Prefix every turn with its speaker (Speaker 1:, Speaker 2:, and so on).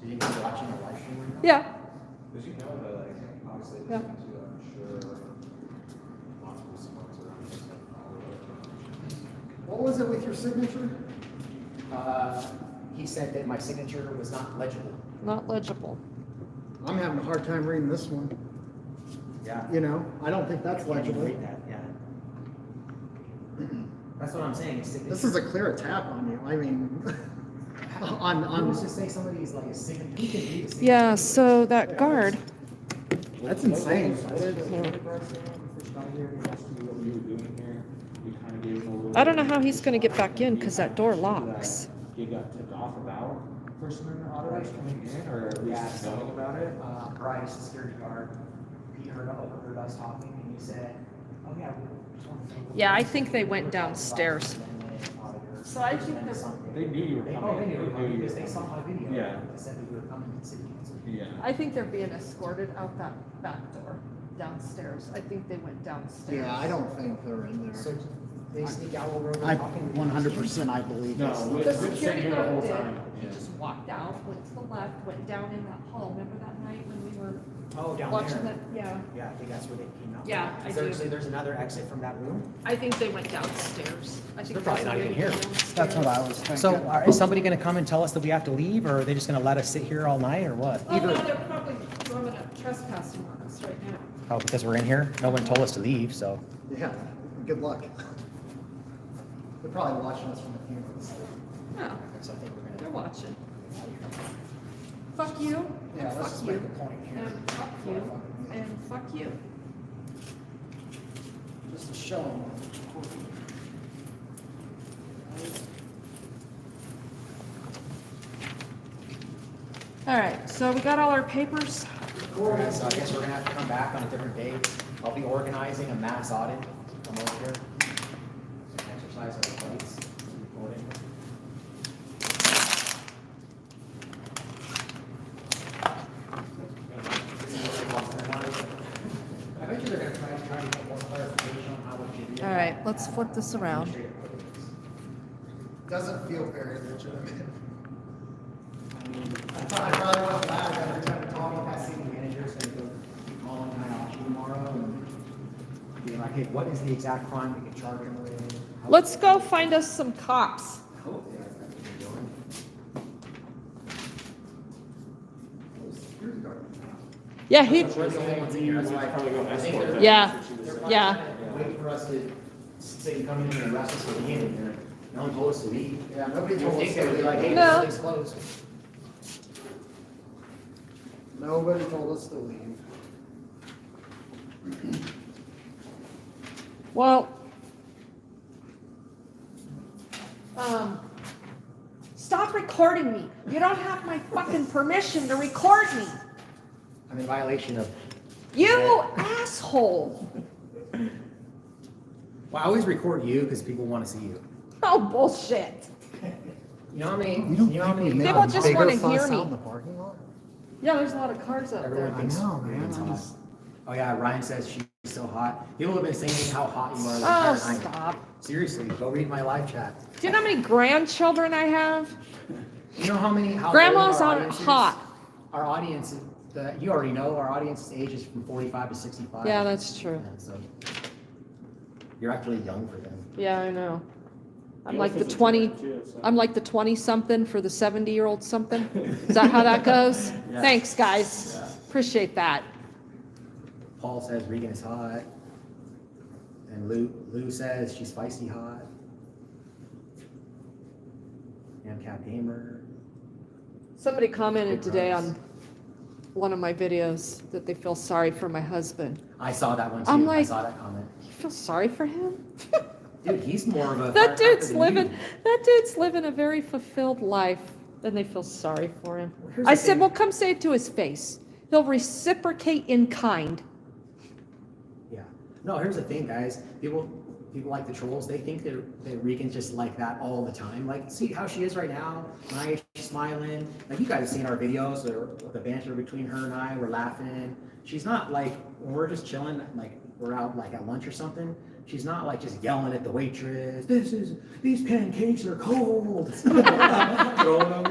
Speaker 1: Did you be watching a live stream?
Speaker 2: Yeah.
Speaker 3: Because you know that, like, obviously,
Speaker 2: Yeah.
Speaker 3: there's two, I'm sure, multiple spots around this, like, all over.
Speaker 4: What was it with your signature?
Speaker 1: Uh, he said that my signature was not legible.
Speaker 2: Not legible.
Speaker 4: I'm having a hard time reading this one,
Speaker 1: Yeah.
Speaker 4: you know? I don't think that's
Speaker 1: I can't even read
Speaker 4: legible.
Speaker 1: that, yeah. That's what I'm saying, his signature.
Speaker 4: This is a clear attack on you, I mean, on,
Speaker 1: I was
Speaker 4: on,
Speaker 1: just saying somebody's like a signature, he can read a signature.
Speaker 2: Yeah, so that guard.
Speaker 4: that's insane.
Speaker 3: What we were doing here, we kind of gave him a little.
Speaker 2: I don't know how he's gonna get back in because that door locks.
Speaker 3: He got tipped off about First Amendment autos coming in, or at
Speaker 1: Yeah,
Speaker 3: least
Speaker 1: so-
Speaker 3: knowing about it.
Speaker 1: Uh, Bryce, the security guard, he heard, overheard us talking and he said, oh yeah, we just want to. thank the
Speaker 2: Yeah, I
Speaker 1: police."
Speaker 2: think they
Speaker 1: We
Speaker 2: went
Speaker 1: were talking about
Speaker 2: downstairs.
Speaker 1: the amendment, auditor,
Speaker 5: So I think
Speaker 1: and
Speaker 5: that-
Speaker 1: something.
Speaker 3: They knew you were
Speaker 1: They, oh, they
Speaker 3: coming,
Speaker 1: knew we were coming
Speaker 3: you were
Speaker 1: because they saw my
Speaker 3: coming.
Speaker 1: video.
Speaker 3: Yeah.
Speaker 1: They said that we were coming to city council.
Speaker 3: Yeah.
Speaker 5: I think they're being escorted out that back door downstairs. I think they went downstairs.
Speaker 4: Yeah, I don't think they're in
Speaker 1: So
Speaker 4: there.
Speaker 1: they sneak out while we're
Speaker 4: I,
Speaker 1: talking.
Speaker 4: one hundred percent, I believe
Speaker 3: No,
Speaker 4: this.
Speaker 3: we-
Speaker 5: The
Speaker 3: It's been sitting
Speaker 5: security
Speaker 3: here the whole
Speaker 5: guard did.
Speaker 3: time,
Speaker 5: He
Speaker 3: yeah.
Speaker 5: just walked out, went to the left, went down in that hall. Remember that night when we were
Speaker 1: Oh, down
Speaker 5: watching
Speaker 1: there.
Speaker 5: that? Yeah.
Speaker 1: Yeah, I think that's where they came out.
Speaker 5: Yeah, I
Speaker 1: Is there-
Speaker 5: do.
Speaker 1: So there's another exit from that room?
Speaker 5: I think they went downstairs. I think
Speaker 1: They're probably
Speaker 5: that's
Speaker 1: not
Speaker 5: the
Speaker 1: even
Speaker 5: way
Speaker 1: here.
Speaker 5: they went
Speaker 4: That's what I
Speaker 5: downstairs.
Speaker 4: was thinking.
Speaker 6: So are, is somebody gonna come and tell us that we have to leave, or are they just gonna let us sit here all night, or what?
Speaker 5: Oh, no, they're probably throwing up trespassing on us right now.
Speaker 6: Oh, because we're in here? No one told us to leave, so.
Speaker 4: Yeah, good luck. They're probably watching us from the cameras.
Speaker 2: Oh.
Speaker 5: Yeah,
Speaker 1: So I think we're
Speaker 5: they're
Speaker 1: gonna.
Speaker 5: watching. Fuck you.
Speaker 4: Yeah, let's just
Speaker 5: Fuck
Speaker 4: make
Speaker 5: you.
Speaker 4: a point here.
Speaker 5: And fuck you. And fuck you.
Speaker 4: Just to show them.
Speaker 5: All right, so we got all our papers?
Speaker 1: Okay, So I guess we're gonna have to come back on a different day. I'll be organizing a mass audit. Come over here. Exercise our rights. Recording. I bet you they're gonna try, try to get more clarification on how we should do.
Speaker 2: All right, let's flip this around.
Speaker 4: Doesn't feel very legitimate. I thought I probably would have laughed every time I
Speaker 1: Call
Speaker 4: talked
Speaker 1: my
Speaker 4: about
Speaker 1: city manager's gonna go call him Kyle tomorrow and be like, hey, what is the exact crime we can charge him with? How-
Speaker 2: Let's go find us some
Speaker 1: I
Speaker 2: cops.
Speaker 1: hope they have that they're doing.
Speaker 2: Yeah, he, yeah,
Speaker 1: They're probably
Speaker 2: Yeah.
Speaker 1: trying to Wait for us to say, come in here and arrest us for being in here. No one told us to leave.
Speaker 4: Yeah, nobody
Speaker 1: You
Speaker 4: told
Speaker 1: think
Speaker 4: us
Speaker 1: they would be like,
Speaker 4: to
Speaker 1: hey,
Speaker 4: leave.
Speaker 2: No.
Speaker 1: this place closed.
Speaker 4: Nobody told us to leave.
Speaker 2: well,
Speaker 5: Um, stop recording me. You don't have my fucking permission to record me.
Speaker 1: I'm in violation of.
Speaker 5: You asshole.
Speaker 1: Well, I always record you because people want to see you.
Speaker 5: Oh, bullshit.
Speaker 1: You know what I mean?
Speaker 4: You don't
Speaker 1: You know what I
Speaker 4: think we
Speaker 1: mean?
Speaker 4: made
Speaker 2: People
Speaker 4: a
Speaker 2: just
Speaker 4: bigger
Speaker 2: wanna hear
Speaker 4: fuss
Speaker 2: me.
Speaker 4: out in the parking lot?
Speaker 5: Yeah, there's a lot of cars up there.
Speaker 1: Everyone thinks.
Speaker 4: I know, man,
Speaker 1: everyone's
Speaker 4: I'm
Speaker 1: hot.
Speaker 4: just-
Speaker 1: Oh yeah, Ryan says she's so hot. People have been saying how hot you are. the
Speaker 2: oh,
Speaker 1: entire night.
Speaker 2: stop.
Speaker 1: Seriously, go read my live chat.
Speaker 2: Do you know how many grandchildren I have?
Speaker 1: You know how many? How
Speaker 2: Grandmas
Speaker 1: old our
Speaker 2: are
Speaker 1: audience is?
Speaker 2: hot.
Speaker 1: Our audience, is- the, you already know, our audience's age is from 45 to 65.
Speaker 2: Yeah, that's true.
Speaker 1: Yeah, so you're actually young for them.
Speaker 2: Yeah, I know. I'm like the 20, I'm like the 20 something for the 70 year old something. Is that how that goes?
Speaker 1: Yeah.
Speaker 2: Thanks, guys.
Speaker 1: Yeah.
Speaker 2: Appreciate that.
Speaker 1: Paul says Regan is hot, and Lou Lou says she's spicy hot. And Cat Gamer.
Speaker 2: Somebody commented
Speaker 1: Big
Speaker 2: today
Speaker 1: rocks.
Speaker 2: on one of my videos that they feel sorry for my husband.
Speaker 1: I saw that one too.
Speaker 2: I'm
Speaker 1: I
Speaker 2: like-
Speaker 1: saw that comment.
Speaker 2: You feel sorry for him?
Speaker 1: Dude, he's more of a.
Speaker 2: That
Speaker 1: firecracker
Speaker 2: dude's
Speaker 1: than
Speaker 2: living,
Speaker 1: you.
Speaker 2: that dude's living a very fulfilled life and they feel sorry for him.
Speaker 1: Here's
Speaker 2: I
Speaker 1: the
Speaker 2: said,
Speaker 1: thing.
Speaker 2: well, come say it to his face. He'll reciprocate in kind.
Speaker 1: Yeah. No, here's the thing, guys. People people like the trolls. They think that that Regan's just like that all the time. Like, see how she is right now. Nice, she's smiling. Like you guys have seen our videos, the, the banter between her and I. We're laughing. She's not like when we're just chilling, like we're out like at lunch or something. She's not like just yelling at the waitress. This is these pancakes are cold.
Speaker 3: Throwing them